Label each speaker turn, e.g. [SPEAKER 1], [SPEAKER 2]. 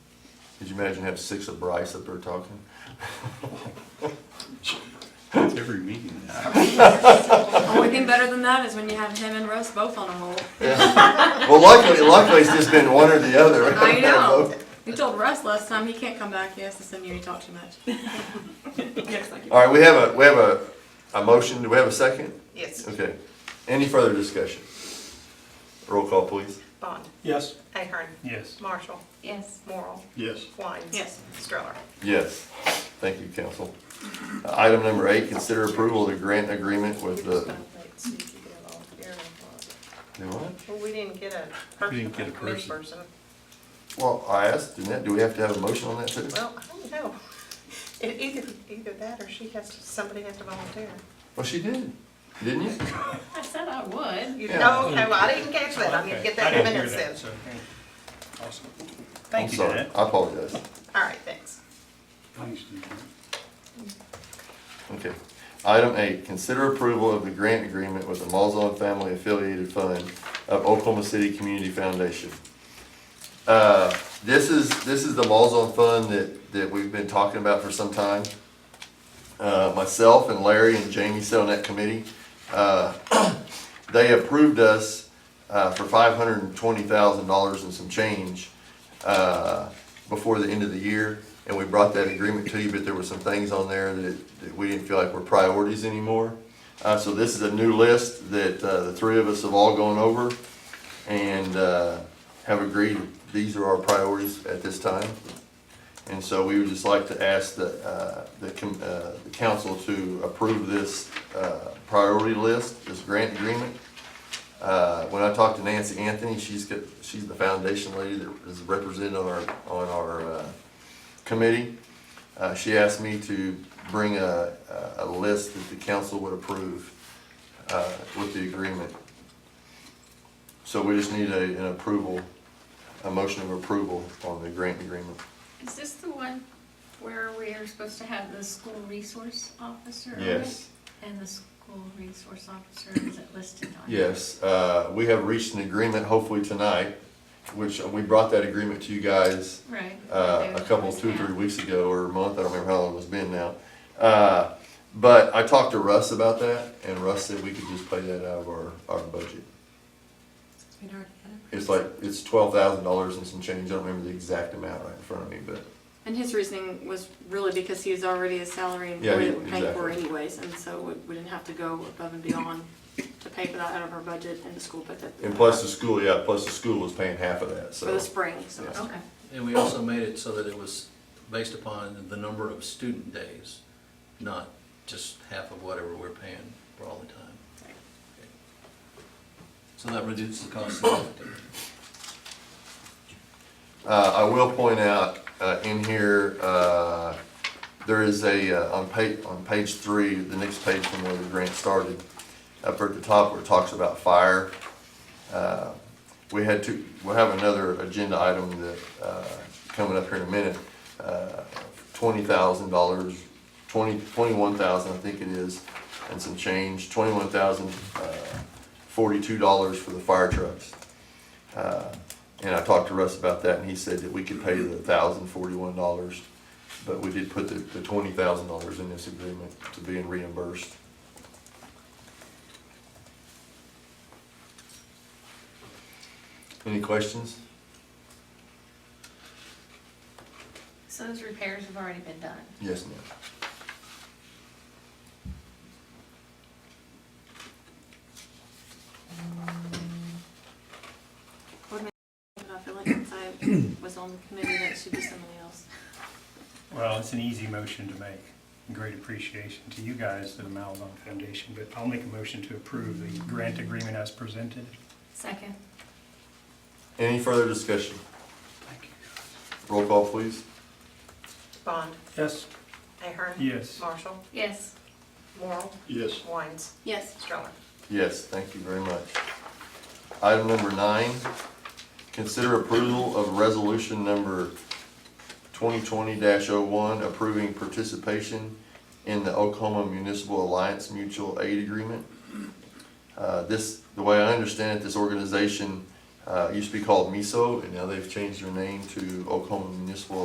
[SPEAKER 1] Could you imagine have six of Bryce up there talking?
[SPEAKER 2] It's every meeting now.
[SPEAKER 3] Only thing better than that is when you have him and Russ both on a roll.
[SPEAKER 1] Well, luckily, luckily it's just been one or the other.
[SPEAKER 3] I know. We told Russ last time he can't come back. He has to send you. You talk too much. Yes, like you.
[SPEAKER 1] All right, we have a, we have a, a motion. Do we have a second?
[SPEAKER 4] Yes.
[SPEAKER 1] Okay. Any further discussion? Roll call, please.
[SPEAKER 4] Bond.
[SPEAKER 5] Yes.
[SPEAKER 4] Ahern.
[SPEAKER 2] Yes.
[SPEAKER 4] Marshall.
[SPEAKER 3] Yes.
[SPEAKER 4] Morrell.
[SPEAKER 2] Yes.
[SPEAKER 4] Wines.
[SPEAKER 3] Yes.
[SPEAKER 4] Stroller.
[SPEAKER 1] Yes. Thank you, council. Uh, Item number eight, consider approval of the grant agreement with the. Do what?
[SPEAKER 4] Well, we didn't get a
[SPEAKER 2] We
[SPEAKER 4] person,
[SPEAKER 2] didn't get a
[SPEAKER 4] a committee
[SPEAKER 2] person.
[SPEAKER 4] person.
[SPEAKER 1] Well, I asked, didn't that, do we have to have a motion on that too?
[SPEAKER 4] Well, I don't know. It, either, either that or she has, to. somebody has to volunteer.
[SPEAKER 1] Well, she did, didn't you?
[SPEAKER 3] I said I would.
[SPEAKER 4] You
[SPEAKER 1] Yeah.
[SPEAKER 4] know, no, I didn't catch that. I need to get that in a minute then.
[SPEAKER 5] Awesome.
[SPEAKER 2] Thank you,
[SPEAKER 1] I'm sorry.
[SPEAKER 2] Dad.
[SPEAKER 1] I apologize.
[SPEAKER 4] All right, thanks.
[SPEAKER 2] Thanks, Dad.
[SPEAKER 1] Okay. Item eight, consider approval of the grant agreement with the Malzahn Family Affiliated Fund of Oklahoma City Community Foundation. Uh, this is, this is the Malzahn Fund that, that we've been talking about for some time. Uh, myself and Larry and Jamie sit on that committee. Uh, they approved us, uh, for five hundred and twenty thousand dollars and some change, uh, before the end of the year. And we brought that agreement to you, but there were some things on there that, that we didn't feel like were priorities anymore. Uh, so this is a new list that, uh, the three of us have all gone over and, uh, have agreed, these are our priorities at this time. And so we would just like to ask the, uh, the, com- uh, the council to approve this, uh, priority list, this grant agreement. Uh, when I talked to Nancy Anthony, she's got, she's the foundation lady that is represented on our, on our, uh, committee. Uh, she asked me to bring a, a- a list that the council would approve, uh, with the agreement. So we just need a, an approval, a motion of approval on the grant agreement.
[SPEAKER 6] Is this the one where we are supposed to have the school resource officer? on it?
[SPEAKER 1] Yes.
[SPEAKER 6] And the school resource officer, is it listed on? it?
[SPEAKER 1] Yes, uh, we have reached an agreement hopefully tonight, which uh, we brought that agreement to you guys
[SPEAKER 6] Right.
[SPEAKER 1] uh, a
[SPEAKER 6] There's
[SPEAKER 1] couple,
[SPEAKER 6] always
[SPEAKER 1] two,
[SPEAKER 6] that.
[SPEAKER 1] three weeks ago or a month, I don't remember how long it's been now. Uh, But I talked to Russ about that and Russ said we could just pay that out of our, our budget. It's like, it's twelve thousand dollars and some change, I don't remember the exact amount right in front of me, but
[SPEAKER 3] And his reasoning was really because he was already a salary
[SPEAKER 1] Yeah,
[SPEAKER 3] employee
[SPEAKER 1] he-
[SPEAKER 3] that we paid for
[SPEAKER 1] exactly.
[SPEAKER 3] anyways, and so we, we didn't have to go above and beyond to pay for that out of our budget and the school budget.
[SPEAKER 1] and plus uh, the school, yeah, plus the school was paying half of that, so.
[SPEAKER 3] For the spring, so.
[SPEAKER 1] Yeah.
[SPEAKER 6] Okay,
[SPEAKER 7] And we also made it so that it was based upon the number of student days, not just half of whatever we're paying for all the time. Okay. So that reduces the cost significantly.
[SPEAKER 1] Uh, I will point out, uh, in here, uh, there is a, uh, on pa- on page three, the next page from where the grant started, up at the top where it talks about fire. Uh, We had two, we'll have another agenda item that, uh, coming up here in a minute, uh, twenty thousand dollars, twenty, twenty-one thousand, I think it is, and some change, twenty-one thousand, uh, forty-two dollars for the fire trucks. Uh, And I talked to Russ about that, and he said that we could pay the thousand forty-one dollars, but we did put the, the twenty thousand dollars in this agreement to being reimbursed. Any questions?
[SPEAKER 6] so those repairs have already been done.
[SPEAKER 1] Yes, ma'am.
[SPEAKER 3] But I feel like since I was on the committee, that should be somebody else.
[SPEAKER 5] Well, it's an easy motion to make. Great appreciation to you guys, the Malzahn Foundation, but I'll make a motion to approve the grant agreement as presented.
[SPEAKER 6] Second,
[SPEAKER 1] Any further discussion?
[SPEAKER 5] Thank you.
[SPEAKER 1] Roll call, please.
[SPEAKER 4] Bond.
[SPEAKER 5] Yes.
[SPEAKER 4] Ahern.
[SPEAKER 5] Yes.
[SPEAKER 4] Marshall.
[SPEAKER 6] yes,
[SPEAKER 4] Morrell.
[SPEAKER 2] Yes.
[SPEAKER 4] Wines.
[SPEAKER 3] Yes.
[SPEAKER 4] Stroller.
[SPEAKER 1] Yes, thank you very much. Item number nine, consider approval of resolution number twenty twenty oh one approving participation in the Oklahoma Municipal Alliance Mutual Aid Agreement. Uh, this, the way I understand it, this organization, uh, used to be called MISO, and now they've changed their name to Oklahoma Municipal